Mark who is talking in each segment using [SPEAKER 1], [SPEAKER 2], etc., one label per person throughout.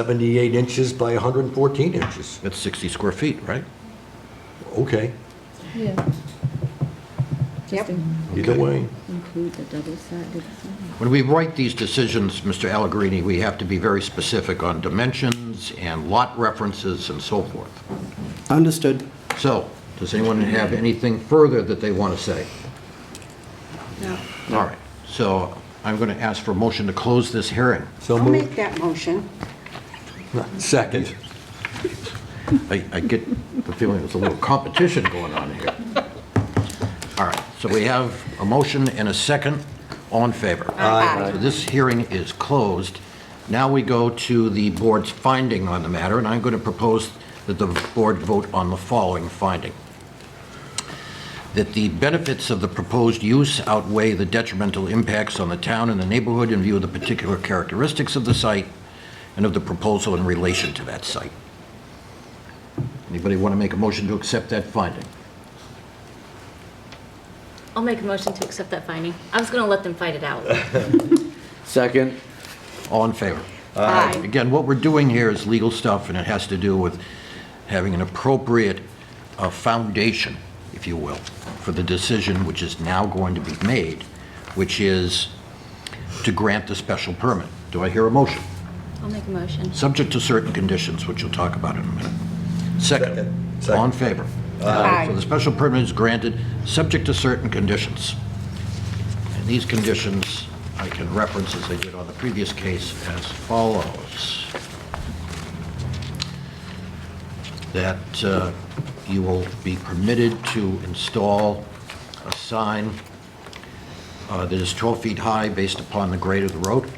[SPEAKER 1] 78 inches by 114 inches.
[SPEAKER 2] That's 60 square feet, right?
[SPEAKER 1] Okay,
[SPEAKER 3] Yeah.
[SPEAKER 4] Yep.
[SPEAKER 3] Just in-
[SPEAKER 1] either
[SPEAKER 2] Okay.
[SPEAKER 1] way.
[SPEAKER 3] include the double-sided sign.
[SPEAKER 2] When we write these decisions, Mr. Allegrini, we have to be very specific on dimensions and lot references and so forth.
[SPEAKER 5] Understood.
[SPEAKER 2] So, does anyone have anything further that they want to say?
[SPEAKER 4] No.
[SPEAKER 2] All right, so I'm going to ask for a motion to close this hearing.
[SPEAKER 1] So
[SPEAKER 4] I'll make
[SPEAKER 1] moved.
[SPEAKER 4] that motion.
[SPEAKER 1] Second.
[SPEAKER 2] I, I get the feeling there's a little competition going on here. All right, so we have a motion and a second. All in favor?
[SPEAKER 4] Aye. Aye.
[SPEAKER 2] So This hearing is closed. Now we go to the board's finding on the matter, and I'm going to propose that the board vote on the following finding. That the benefits of the proposed use outweigh the detrimental impacts on the town and the neighborhood in view of the particular characteristics of the site and of the proposal in relation to that site. Anybody want to make a motion to accept that finding?
[SPEAKER 6] I'll make a motion to accept that finding. I was going to let them fight it out.
[SPEAKER 5] Second.
[SPEAKER 2] All in favor?
[SPEAKER 4] Aye.
[SPEAKER 2] Again, what we're doing here is legal stuff, and it has to do with having an appropriate uh, foundation, if you will, for the decision which is now going to be made, which is to grant the special permit. Do I hear a motion?
[SPEAKER 6] I'll make a motion.
[SPEAKER 2] Subject to certain conditions, which we'll talk about in a minute. Second,
[SPEAKER 1] Second. Second.
[SPEAKER 2] all in favor?
[SPEAKER 4] Aye.
[SPEAKER 2] So the special permit is granted, subject to certain conditions. And these conditions, I can reference as I did on the previous case, as follows. That uh, you will be permitted to install a sign uh, that is 12 feet high based upon the grade of the road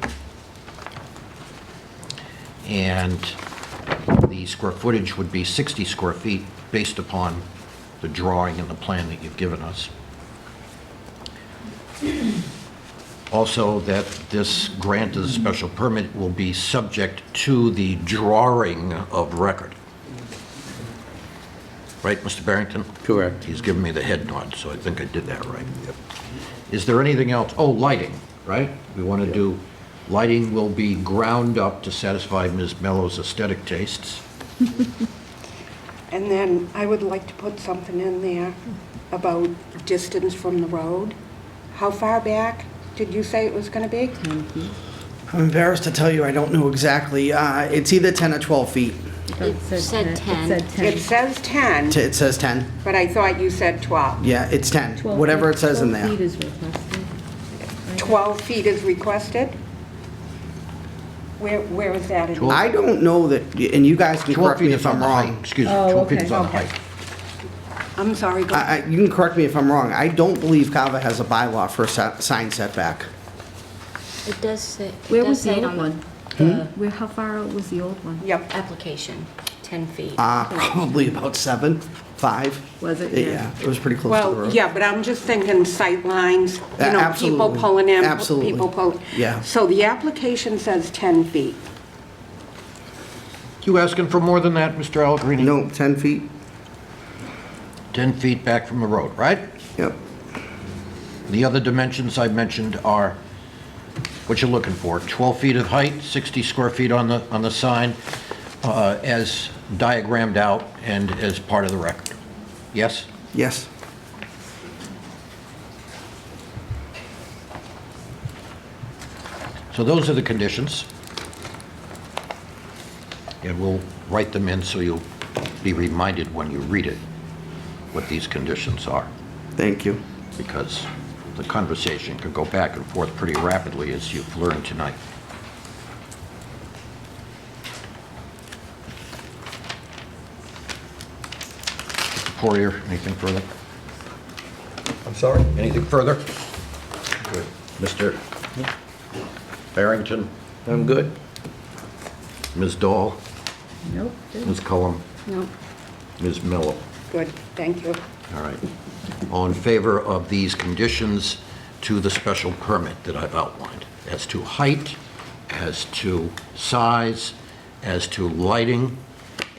[SPEAKER 2] and the square footage would be 60 square feet based upon the drawing and the plan that you've given us. Also, that this grant of the special permit will be subject to the drawing of record. Right, Mr. Barrington?
[SPEAKER 5] Correct.
[SPEAKER 2] He's giving me the head nod, so I think I did that right. Is there anything else? Oh, lighting, right? We want to do, lighting will be ground up to satisfy Ms. Mello's aesthetic tastes.
[SPEAKER 4] And then I would like to put something in there about distance from the road. How far back did you say it was going to be?
[SPEAKER 5] I'm embarrassed to tell you, I don't know exactly. Uh, It's either 10 or 12 feet.
[SPEAKER 6] It said 10.
[SPEAKER 3] It Oh, said 10.
[SPEAKER 4] It says 10,
[SPEAKER 5] T- It says 10.
[SPEAKER 4] but I thought you said 12.
[SPEAKER 5] Yeah, it's 10,
[SPEAKER 3] 12
[SPEAKER 5] whatever
[SPEAKER 3] feet-
[SPEAKER 5] it says in
[SPEAKER 3] 12 feet
[SPEAKER 5] there.
[SPEAKER 3] is requested.
[SPEAKER 4] 12 feet is requested? Where, where is that in?
[SPEAKER 2] Twelve-
[SPEAKER 5] I don't know that, and you guys can
[SPEAKER 2] 12
[SPEAKER 5] correct
[SPEAKER 2] feet
[SPEAKER 5] me if
[SPEAKER 2] is on
[SPEAKER 5] I'm
[SPEAKER 2] the height,
[SPEAKER 5] wrong.
[SPEAKER 2] excuse me,
[SPEAKER 3] Oh,
[SPEAKER 2] 12 feet
[SPEAKER 3] okay,
[SPEAKER 2] is on the
[SPEAKER 3] okay.
[SPEAKER 2] height.
[SPEAKER 4] I'm sorry, go
[SPEAKER 5] I- I- You can correct me if I'm wrong. I don't believe Kava has a bylaw for a si- sign setback.
[SPEAKER 6] It does say, it
[SPEAKER 3] Where
[SPEAKER 6] does
[SPEAKER 3] was
[SPEAKER 6] say
[SPEAKER 3] the
[SPEAKER 6] it
[SPEAKER 3] old
[SPEAKER 6] on
[SPEAKER 3] one?
[SPEAKER 6] the
[SPEAKER 5] Hmm?
[SPEAKER 3] Where, how far out was the old one?
[SPEAKER 4] Yep,
[SPEAKER 6] application, 10 feet.
[SPEAKER 5] Uh, Probably about seven, five.
[SPEAKER 3] Was it? Yeah.
[SPEAKER 5] Yeah, it was pretty close to the
[SPEAKER 4] well,
[SPEAKER 5] road.
[SPEAKER 4] yeah, but I'm just thinking sight lines,
[SPEAKER 5] A-
[SPEAKER 4] you know, people
[SPEAKER 5] absolutely.
[SPEAKER 4] pulling in,
[SPEAKER 5] Absolutely.
[SPEAKER 4] people pulling.
[SPEAKER 5] Yeah.
[SPEAKER 4] So the application says 10 feet.
[SPEAKER 2] You asking for more than that, Mr. Allegrini?
[SPEAKER 5] No, 10 feet.
[SPEAKER 2] 10 feet back from the road, right?
[SPEAKER 5] Yep.
[SPEAKER 2] The other dimensions I mentioned are what you're looking for, 12 feet of height, 60 square feet on the, on the sign, uh, as diagrammed out and as part of the record. Yes?
[SPEAKER 5] Yes.
[SPEAKER 2] So those are the conditions. And we'll write them in so you'll be reminded when you read it what these conditions are,
[SPEAKER 5] Thank you.
[SPEAKER 2] because the conversation could go back and forth pretty rapidly, as you've learned tonight. Poirier, anything further?
[SPEAKER 1] I'm sorry?
[SPEAKER 2] Anything further? Good. Mr. Barrington,
[SPEAKER 5] I'm good.
[SPEAKER 2] Ms. Dahl?
[SPEAKER 3] Nope.
[SPEAKER 2] Ms. Cullum,
[SPEAKER 3] Nope.
[SPEAKER 2] Ms. Mello.
[SPEAKER 4] Good, thank you.
[SPEAKER 2] All right. All in favor of these conditions to the special permit that I've outlined, as to height, as to size, as to lighting,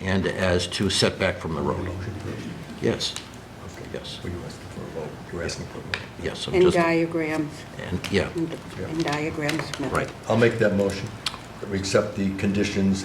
[SPEAKER 2] and as to setback from the road? Yes, yes,
[SPEAKER 1] Were you asking for a vote? You were asking for a vote.
[SPEAKER 2] yes. I'm
[SPEAKER 4] And
[SPEAKER 2] just-
[SPEAKER 4] diagrams,
[SPEAKER 2] And, yeah,
[SPEAKER 4] and and diagrams.
[SPEAKER 2] right.
[SPEAKER 1] I'll make that motion, that we accept the conditions